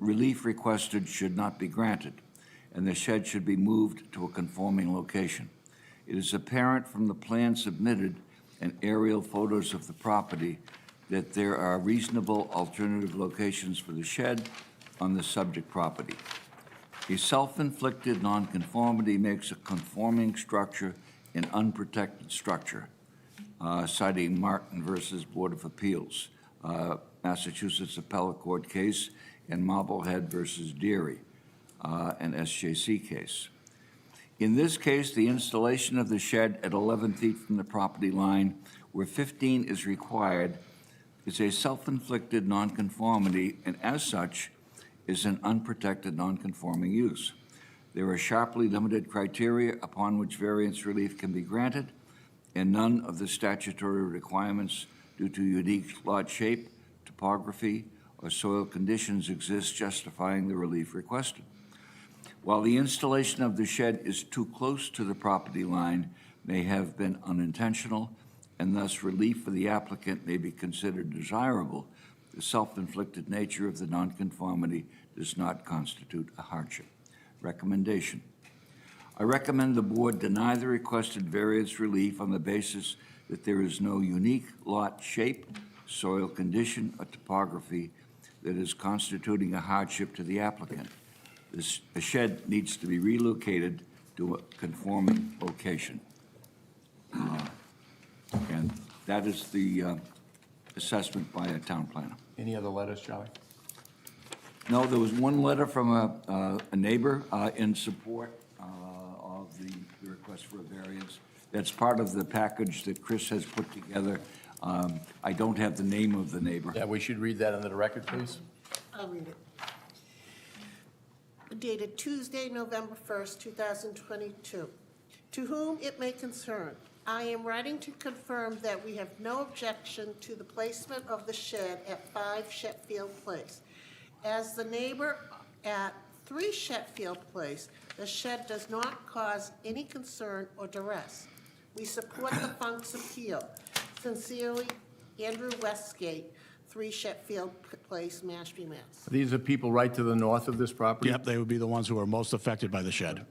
relief requested should not be granted, and the shed should be moved to a conforming location. It is apparent from the plan submitted and aerial photos of the property that there are reasonable alternative locations for the shed on the subject property. A self-inflicted nonconformity makes a conforming structure an unprotected structure, uh, citing Martin versus Board of Appeals, uh, Massachusetts Appellate Court case, and Marblehead versus Deary, uh, an SJC case. In this case, the installation of the shed at 11 feet from the property line, where 15 is required, is a self-inflicted nonconformity, and as such, is an unprotected nonconforming use. There are sharply limited criteria upon which variance relief can be granted, and none of the statutory requirements due to unique lot shape, topography, or soil conditions exist justifying the relief requested. While the installation of the shed is too close to the property line may have been unintentional, and thus relief for the applicant may be considered desirable, the self-inflicted nature of the nonconformity does not constitute a hardship. Recommendation. I recommend the board deny the requested variance relief on the basis that there is no unique lot shape, soil condition, or topography that is constituting a hardship to the applicant. This, the shed needs to be relocated to a conforming location. Uh, And that is the uh, assessment by a town planner. Any other letters, Charlie? No, there was one letter from a, uh, a neighbor uh, in support uh, of the the request for a variance. That's part of the package that Chris has put together. Um, I don't have the name of the neighbor. Yeah, we should read that into the record, please. I'll read it. Dated Tuesday, November 1st, 2022. To whom it may concern, I am writing to confirm that we have no objection to the placement of the shed at 5 Sheffield Place. As the neighbor at 3 Sheffield Place, the shed does not cause any concern or duress. We support the Funk's appeal. Sincerely, Andrew Westgate, 3 Sheffield Place, Mashpee, Mass. These are people right to the north of this property? Yep, they would be the ones who are most affected by the shed.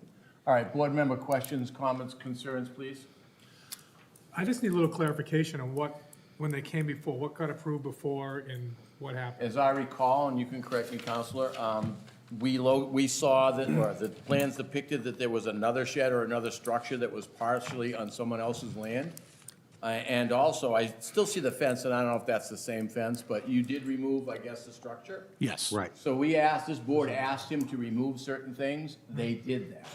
All right, board member questions, comments, concerns, please? I just need a little clarification on what, when they came before, what got approved before and what happened. As I recall, and you can correct me, Counselor, um, we lo, we saw that, or the plans depicted that there was another shed or another structure that was partially on someone else's land. Uh, and also, I still see the fence, and I don't know if that's the same fence, but you did remove, I guess, the structure? Yes. Right. So we asked, this board asked him to remove certain things, they did that.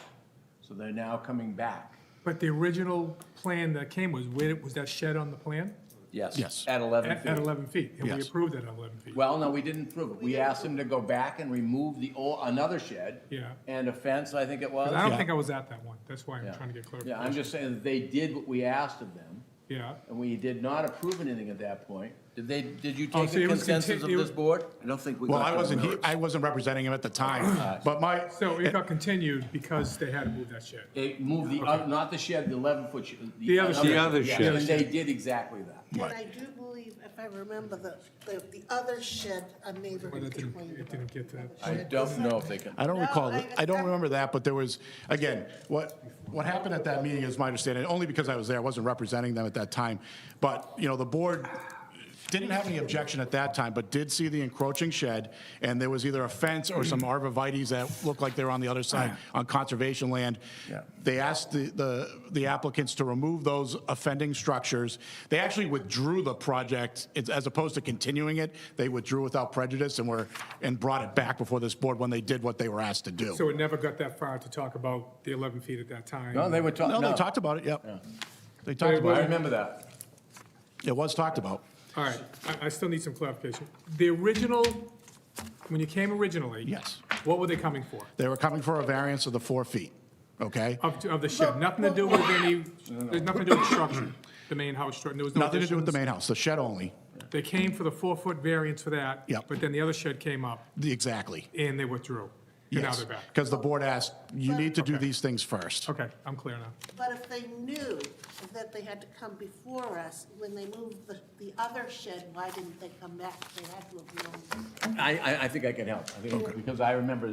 So they're now coming back. But the original plan that came was, where, was that shed on the plan? Yes. Yes. At eleven At at feet. 11 feet, and we Yes. approved it at 11 feet. Well, no, we didn't approve it. We asked him to go back and remove the old, another shed. Yeah. And a fence, I think it was. But I don't Yeah. think I was at that one, that's why I'm Yeah. trying to get Yeah, I'm clarification. just saying that they did what we asked of them, Yeah, and we did not approve anything at that point. Did they, did you Oh, take so the it was conti- consensus of it this was- board? I don't think we got Well, I that wasn't, he- notice. I wasn't representing him at the time, but my, so it got continued because they had to move that shed. They moved the, oth- not the shed, the eleven-foot shed. The other shed. The other yes, shed. And they did exactly that. And I do believe, if I remember, the, the, the other shed, a neighbor But it didn't, complained it about. didn't get to that. I don't know if they can. I don't No, recall, I- I don't remember that, but there was, again, what, what happened at that meeting is my understanding, only because I was there, I wasn't representing them at that time. But, you know, the board didn't have any objection at that time, but did see the encroaching shed, and there was either a fence or some arborvitae's that looked like they were on the other side, on conservation land. Yeah. They asked the- the, the applicants to remove those offending structures. They actually withdrew the project, It's- as opposed to continuing it, they withdrew without prejudice and were, and brought it back before this board when they did what they were asked to do. So it never got that far to talk about the 11 feet at that time. No, they were talking, No, no. they talked about it, yep. They But talked it about I it, remember that. it was talked about. All right, I, I still need some clarification. The original, when you came originally. Yes. What were they coming for? They were coming for a variance of the four feet, okay? Of, of the shed, nothing to do with any, there's nothing to do with structure, the main house structure, there was no Nothing to do with the additions. main house, the shed only, They came for the four-foot variance for that. Yep. But then the other shed came up The- exactly. and they withdrew. and now Yes, they're back. because the board asked, you need to do these things first. Okay, I'm clear now. But if they knew that they had to come before us, when they moved the, the other shed, why didn't they come back? They had to have known. I, I, I think I can help, I think, because I remember